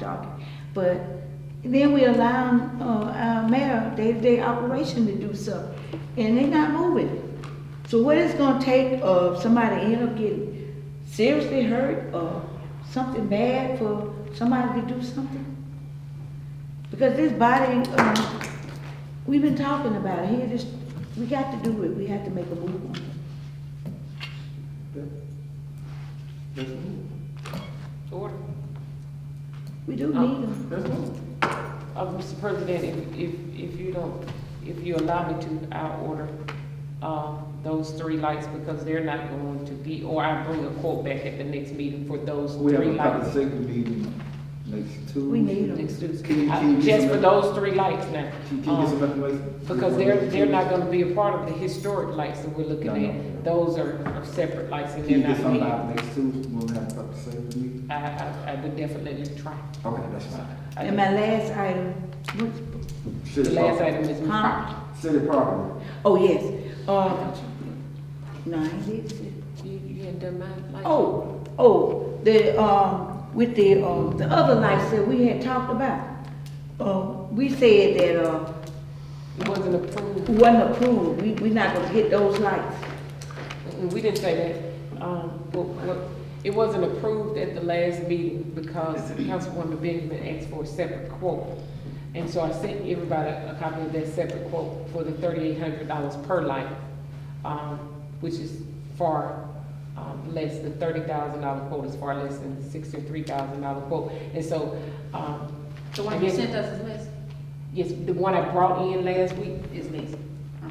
park. But then we allow, uh, our mayor day-to-day operation to do something, and they not moving. So what it's gonna take, uh, somebody end up getting seriously hurt or something bad for somebody to do something? Because this body, um, we've been talking about it, he just, we got to do it, we have to make a move on it. Let's move. Order. We do need Oh. them. Let's move. Uh, Mr. President, if, if, if you don't, if you allow me to, I'll order, um, those three lights because they're not going to be, or I'll bring a quote back at the next meeting for those We have three a public lights. safety meeting next Tuesday. We need 'em. Excuse- Can you- I- can you get Just for some- those three lights now. Can can you get some Um, information? Because they're, they're not gonna be a part of the historic lights that we're looking No, no. at. Those are, are separate lights and Can you they're get not something needed. out next Tuesday when we have a public safety meeting? I, I, I would definitely try. Okay, that's fine. I- And my last item, what- The City last property. item is huh? property. City property. Oh, yes, uh, no, I didn't see. You, Oh, you ain't done my light? Oh, oh, the, um, with the, um, the other lights that we had talked about. Uh, we said that, uh, It wasn't approved. wasn't approved, we, we not gonna get those lights. Mm, We didn't say that. Um, what, what, it wasn't approved at the last meeting because Councilwoman Benjamin asked for a separate quote. And so I sent everybody a copy of that separate quote for the thirty-eight hundred dollars per light, um, which is far, um, less, the thirty thousand dollar quote is far less than the sixty-three thousand dollar quote. And so, um. The I one you guess- sent us is less, Yes, the one I brought in last week, is less.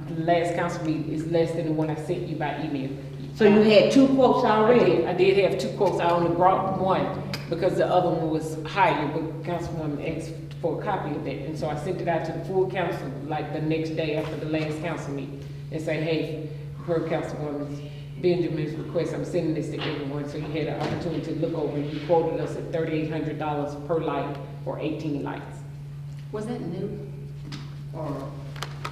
the last council meeting, is less than the one I sent you by email. So you had two quotes I already? did, I did have two quotes, I only brought one because the other one was higher, but Councilwoman asked for a copy of that. And so I sent it out to the full council, like the next day after the last council meeting, and say, hey, per Councilwoman Benjamin's request, I'm sending this to everyone, so you had an opportunity to look over, you quoted us at thirty-eight hundred dollars per light or eighteen lights. Was that new? Or,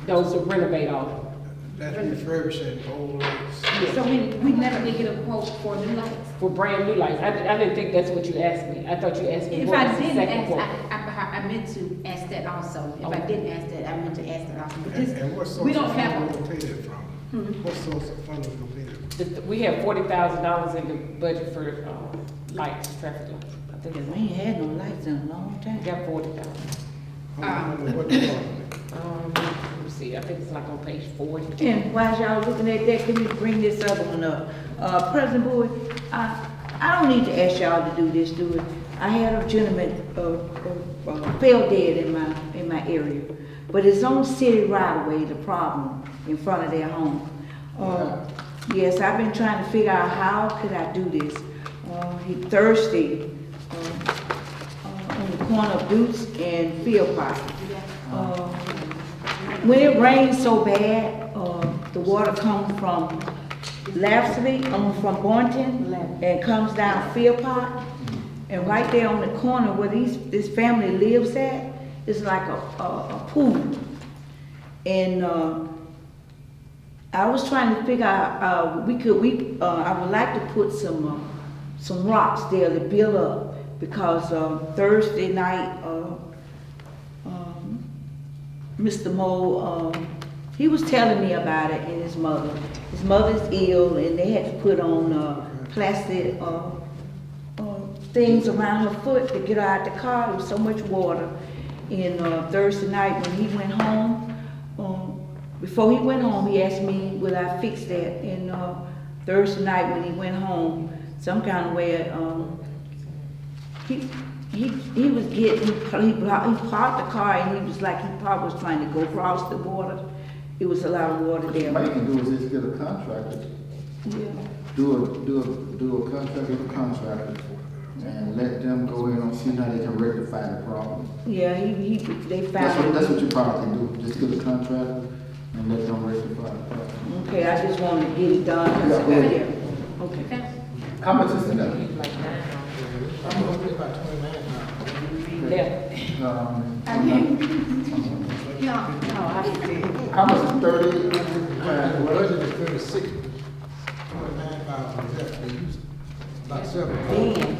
Those are renovate all, That's refurbishing old lights. so we, we never did get a quote for new lights? for brand new lights, I, I didn't think that's what you asked me, I thought you asked me If what I was the didn't second ask, quote. Oh. I, I, I meant to ask that also. If I Okay. didn't ask that, I meant to ask that also. But And and what this, source we of don't funding have, Mm-hmm. will pay that from? What source of funding will pay that from? The- We have forty thousand dollars in the budget for, um, lights, traffic lights. I think We it's, ain't had no lights in a long we time. got forty thousand. Uh, I don't know what department. Um, let me see, I think it's like on page forty. And while y'all looking at that, can you bring this other one up? Uh, President Boyd, I, I don't need to ask y'all to do this, do it. I had a gentleman, uh, uh, uh, fell dead in my, in my area. But it's on city right away, the problem, in front of their home. Uh, yes, I've been trying to figure out how could I do this? Uh, he thirsty, uh, uh, on the corner of Boots and Field Park. Uh, When it rains so bad, uh, the water comes from Lapsley, um, from Boynton, and comes down Field Park. And right there on the corner where these, this family lives at, is like a, a a pool. And, uh, I was trying to figure out, uh, we could, we, uh, I would like to put some, uh, some rocks there to build up because, uh, Thursday night, uh, um, Mr. Moe, um, he was telling me about it and his mother. His mother's ill and they had to put on, uh, plastic, uh, uh, things around her foot to get her out the car. There was so much water. And uh, Thursday night, when he went home, um, before he went home, he asked me, "Will I fix that?" And uh, Thursday night, when he went home, some kind of way, um, he he he was getting he, blocked, he parked the car and he was like he probably was trying to go across the border. It was a lot of water What you there. might can do is just get a contractor, Yeah. do a, do a, do a contract with a contractor and let them go in and see how they can rectify the problem. Yeah, he, he they found. That's it. what, that's what you probably can do, just get a contractor and let them rectify the problem. Okay, I just wanted to get it done. 'cause I got Yeah. here. Okay. How much is in that? Like now, I'm gonna pay about twenty-nine now. left. Um, yeah, no, I, How much is thirty? The budget is thirty-six. Twenty-nine thousand, that's for you. About seven. Damn.